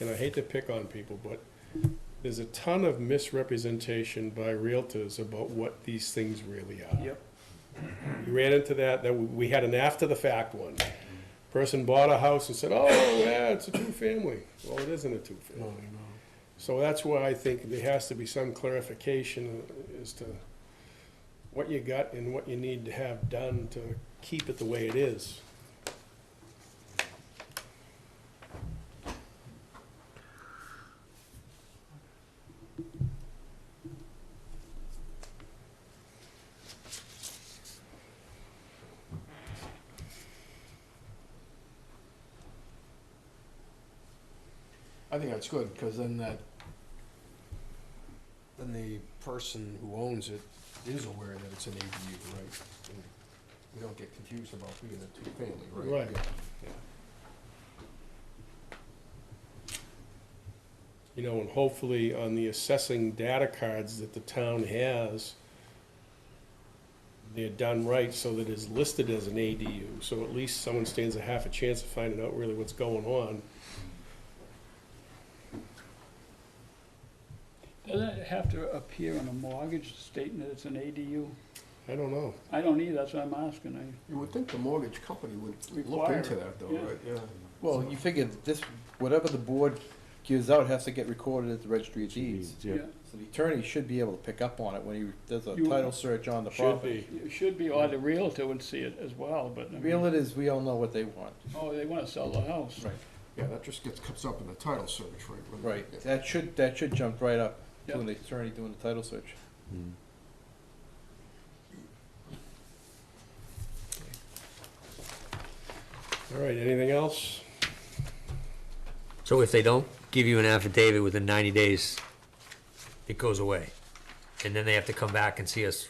and I hate to pick on people, but there's a ton of misrepresentation by realtors about what these things really are. Yep. We ran into that, that we we had an after-the-fact one. Person bought a house and said, oh, yeah, it's a two-family. Well, it isn't a two-family. So that's why I think there has to be some clarification as to what you got and what you need to have done to keep it the way it is. I think that's good, because then that, then the person who owns it is aware that it's an ADU, right? And We don't get confused about being a two-family, right? Right. Yeah. You know, and hopefully on the assessing data cards that the town has, they're done right so that it's listed as an ADU, so at least someone stands a half a chance of finding out really what's going on. Does it have to appear on a mortgage stating that it's an ADU? I don't know. I don't either, that's what I'm asking. I- You would think the mortgage company would look Require into it, that, though, yeah. right? Yeah. Well, you figure that this, whatever the board gives out has to get recorded at the registry of deeds. So the attorney should be able to pick up on it when he does a You- title search on the Should property. be. It should be, or the realtor would see it as well, but, I mean, Realtors, we all know what they want. oh, they wanna sell the house. Right. Yeah, that just gets, comes up in the title search, right? when- Right, Yeah. that should, that should jump right up to Yeah. when the attorney doing the title search. All right, anything else? So if they don't give you an affidavit within ninety days, it goes away. And then they have to come back and see us.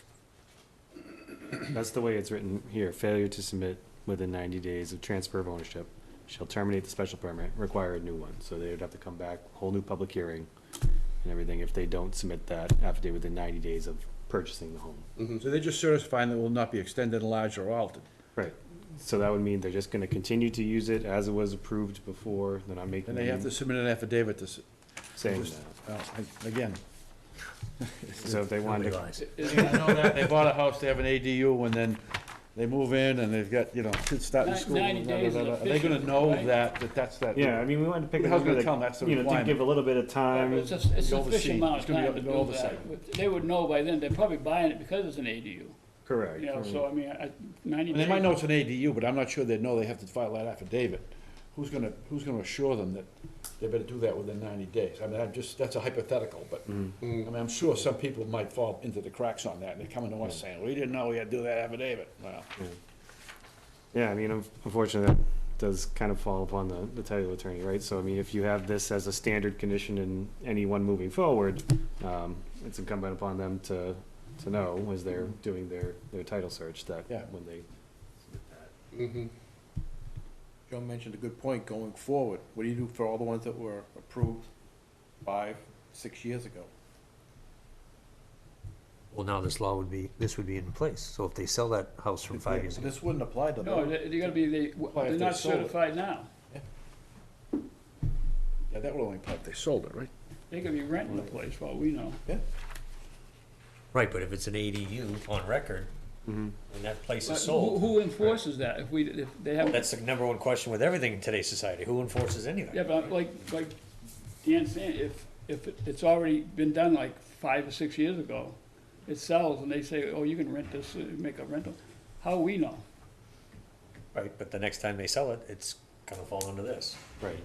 That's the way it's written here. Failure to submit within ninety days of transfer of ownership shall terminate the special permit, require a new one. So they would have to come back, whole new public hearing and everything if they don't submit that affidavit within ninety days of purchasing the home. Mm-hmm. So they're just certifying that it will not be extended, enlarged, or altered. Right. So that would mean they're just gonna continue to use it as it was approved before. They're not making And they have Mm-hmm. to any submit an affidavit to, s- saying just- that. oh, I- again. So if they wanted to, realize. Isn't it known that They bought a house, they have an ADU, and then they move in and they've got, you know, kids starting Ni- school. 90 blah, blah, days blah, is blah. Are they gonna efficient, know right? that, that that's that? yeah, I mean, we wanted to pick a How's number gonna tell 'em that's that, the you know, to requirement? give a little bit of time. It's a, it's a Oversee. sufficient amount It's of gonna be time to under do oversight. that. They would know by then, they're probably buying it because it's an ADU, Correct. you know, so I mean, I- ninety And days. they might know it's an ADU, but I'm not sure they know they have to file that affidavit. Who's gonna, who's gonna assure them that they better do that within ninety days? I mean, I'm just, that's a hypothetical, but, I mean, I'm sure some people might fall into the cracks on that, and they're coming to us saying, we didn't know we had to do that affidavit. Well, Yeah, I mean, un- unfortunately, that does kind of fall upon the, the title attorney, right? So, I mean, if you have this as a standard condition in anyone moving forward, um, it's incumbent upon them to, to know as they're doing their, their title search that Yeah. when they, Mm-hmm. Mhm. Joe mentioned a good point, going forward, what do you do for all the ones that were approved five, six years ago? Well, now this law would be, this would be in place. So if they sell that house from five years ago, This wouldn't apply to No, them. they- they're gonna be, they, Why, if they're they not sold it. certified now, yeah, that would only apply if they sold it, right? they could be renting the place, for all we know. right, but if it's an ADU on record, Mhm. and that place But is who, sold, who enforces that if we, if they haven't? that's the number one question with everything in today's society. Who enforces anything? Yeah, but like, like Dan's saying, if, if it- it's already been done like five or six years ago, it sells and they say, oh, you can rent this, uh, make a rental, how we know? Right, but the next time they sell it, it's gonna fall under this. right,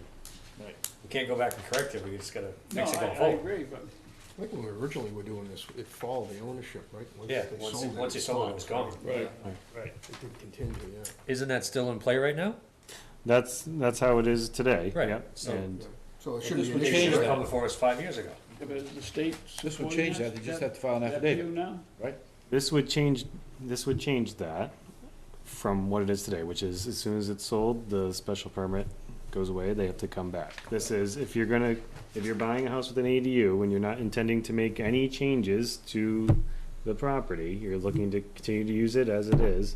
We can't go back and correct it. We just gotta No, fix it I, going I forward. agree, but I think when we originally were doing this, it followed the ownership, right? Yeah, they once, sold it, once you sold it, it was gone. Right. Right. It did continue, yeah. Isn't that still in play right now? That's, that's how it is today, Right, yep, so- and, So it Well, should this be. would an It issue, change should have right? come before us five years ago. if it's the state. This would change that, they just have to file an Is that you affidavit, now? right? This would change, this would change that from what it is today, which is as soon as it's sold, the special permit goes away, they have to come back. This is, if you're gonna, if you're buying a house with an ADU and you're not intending to make any changes to the property, you're looking to continue to use it as it is.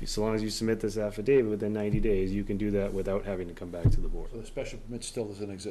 if- So long as you submit this affidavit within ninety days, you can do that without having to come back to the board. So the special permit still is in existence.